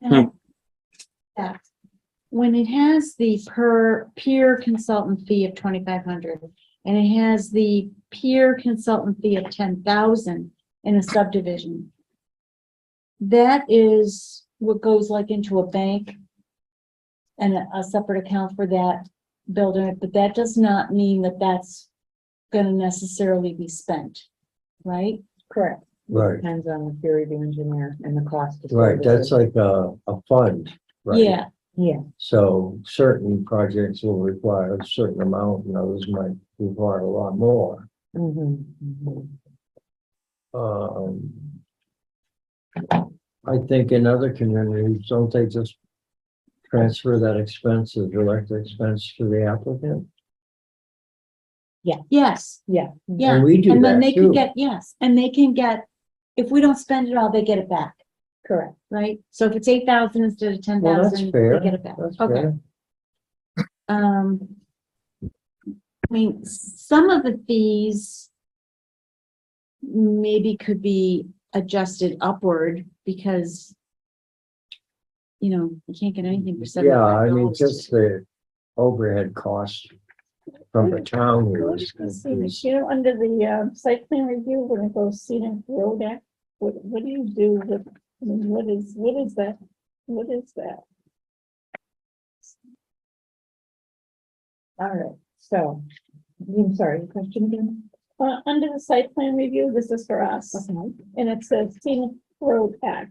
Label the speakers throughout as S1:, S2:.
S1: Now, that, When it has the per peer consultant fee of twenty-five hundred and it has the peer consultant fee of ten thousand in a subdivision. That is what goes like into a bank and a- a separate account for that building, but that does not mean that that's gonna necessarily be spent, right?
S2: Correct.
S3: Right,
S2: Depends on the theory of the engineer and the cost. of
S3: right. That's
S2: services.
S3: like a, a fund, right?
S1: Yeah,
S2: Yeah,
S3: So certain projects will require a certain amount and others might require a lot more.
S2: mhm.
S3: Um. I think in other communities, don't they just transfer that expense or direct expense to the applicant?
S1: yes,
S2: yeah.
S1: yeah.
S3: And we do
S1: And then
S3: that
S1: they can
S3: too.
S1: get, yes, and they can get, if we don't spend it all, they get it back,
S2: Correct.
S1: right? So if it's eight thousand instead of ten
S3: Well, that's
S1: thousand, they
S3: fair.
S1: get it back.
S3: That's
S1: Okay,
S3: fair.
S1: um. I mean, some of the fees maybe could be adjusted upward because you know, you can't get anything for
S3: Yeah, I
S1: seventy-five
S3: mean,
S1: dollars.
S3: just the overhead cost from the town
S4: I
S3: here
S4: was
S3: is-
S4: just gonna say, Michelle, under the uh, site plan review, when it goes scenic road act, what, what do you do with, I mean, what is, what is that? What is that?
S2: All right, so, I'm sorry, your question again?
S4: Uh, under the site plan review, this is for us, and it says scenic road act.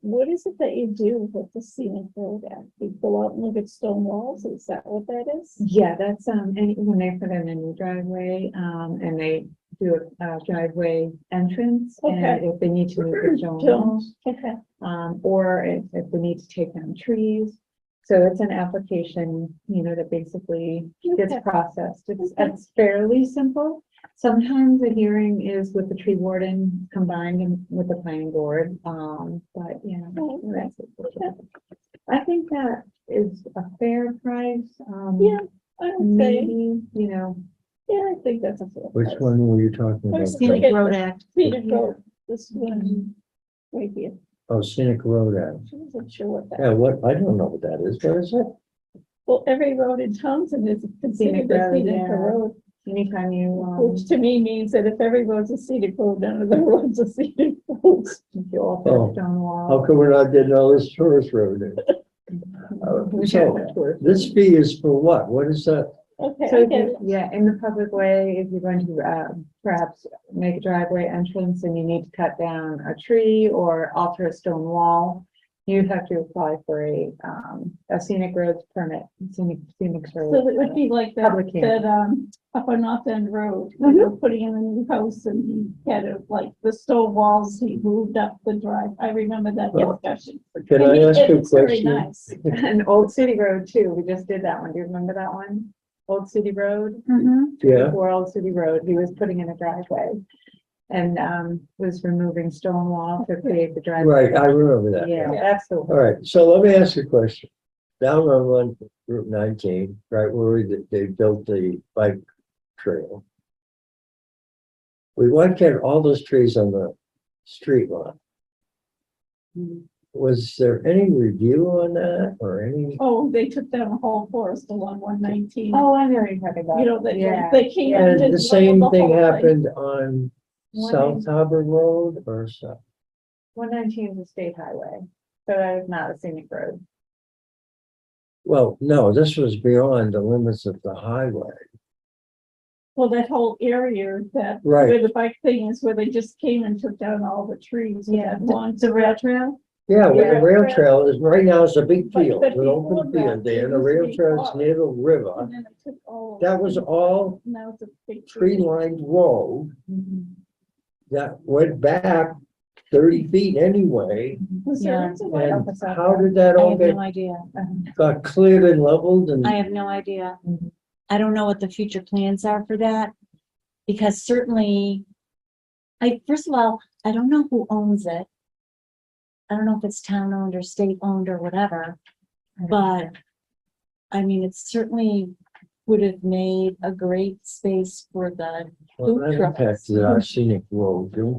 S4: What is it that you do with the scenic road act? You go out and look at stone walls, is that what that is?
S2: Yeah, that's, um, and when they put in a new driveway, um, and they do a uh, driveway entrance. And
S4: Okay.
S2: if they need to move the stone
S4: Sure.
S2: walls,
S4: Okay,
S2: um, or if, if we need to take down trees. So it's an application, you know, that basically gets
S4: Okay.
S2: processed. It's,
S4: Okay.
S2: it's fairly simple. Sometimes a hearing is with the tree warden combined and with the planning board, um, but yeah.
S4: Oh, okay.
S2: that's it. I think that is a fair price, um.
S4: yeah, I would say,
S2: Maybe, you know,
S4: yeah, I think that's a. fair
S3: Which
S4: price.
S3: one were you talking
S4: Or
S3: about?
S4: scenic-
S1: Scenic Road Act.
S4: Scenic road, this one, right here,
S3: Oh, scenic road act.
S4: I wasn't sure what that.
S3: Yeah, what, I don't know what that is. What is it?
S4: Well, every road in Townsend is
S2: Scenic
S4: considered a
S2: road,
S4: scenic
S2: yeah.
S4: road,
S2: anytime you, um,
S4: which to me means that if every road's a scenic road, none of the roads are scenic roads.
S2: if you all
S3: Oh.
S2: put a stone wall.
S3: How come we're not getting all this tourist revenue?
S2: we
S3: Uh,
S2: should
S3: So,
S2: have tours.
S3: this fee is for what? What is that?
S4: Okay,
S2: So,
S4: I
S2: if
S4: get it.
S2: you- yeah, in the public way, if you're going to, uh, perhaps make a driveway entrance and you need to cut down a tree or alter a stone wall, you have to apply for a, um, a scenic roads permit, scenic, scenic.
S4: So it
S2: roads
S4: would
S2: permit.
S4: be like
S2: Public
S4: that,
S2: hearing.
S4: that, um, up on North End Road, they were putting in a new house and he had a, like, the stone walls, he moved up the drive, I remember that
S3: Well,
S4: discussion.
S3: Can
S4: And
S3: I
S4: he-
S3: ask you a
S4: it's very
S3: question?
S4: nice.
S2: And Old City Road too, we just did that one, do you remember that one? Old City Road?
S1: Mhm.
S3: Yeah,
S2: before Old City Road, he was putting in a driveway. And, um, was removing stone wall to create the driveway.
S3: right, I remember that.
S2: Yeah,
S4: Yeah.
S2: that's the
S3: All
S2: one.
S3: right, so let me ask you a question. Down on one, Route nineteen, right where they, they built the bike trail. We wiped out all those trees on the street lot.
S4: Hmm.
S1: Mhm.
S3: Was there any review on that or any?
S4: Oh, they took down a whole forest along one nineteen,
S2: Oh, I know you're talking about.
S4: you know, they,
S2: Yeah.
S4: they came. in and
S3: And the
S4: leveled
S3: same
S4: whole
S3: thing happened on
S2: One
S3: South
S2: is-
S3: Harbor Road or so.
S2: One nineteen is a state highway, so that is not a scenic road.
S3: Well, no, this was beyond the limits of the highway.
S4: Well, that whole area that, where
S3: Right,
S4: the bike thing is, where they just came and took down all the trees.
S2: Yeah.
S4: Once a rail trail?
S3: yeah, where
S2: Yeah.
S3: the rail trail is, right now it's a big
S4: But-
S3: field,
S4: but
S3: an open
S4: before that,
S3: field there, and the
S4: it
S3: rail
S4: used to be
S3: trail's
S4: water.
S3: near the river.
S4: And then they took all.
S3: That was all
S4: Now it's a big
S3: tree lined road that went back thirty feet anyway.
S4: Was there
S1: Yeah.
S4: also like
S3: And how did that
S1: I
S3: all
S1: have
S3: get,
S1: no idea.
S3: got cleared and leveled and?
S1: I have no idea.
S2: Mhm.
S1: I don't know what the future plans are for that. Because certainly, I, first of all, I don't know who owns it. I don't know if it's town owned or state owned or whatever, but I mean, it certainly would have made a great space for the
S3: Well,
S1: food
S3: that
S1: trucks.
S3: impacted our scenic road, didn't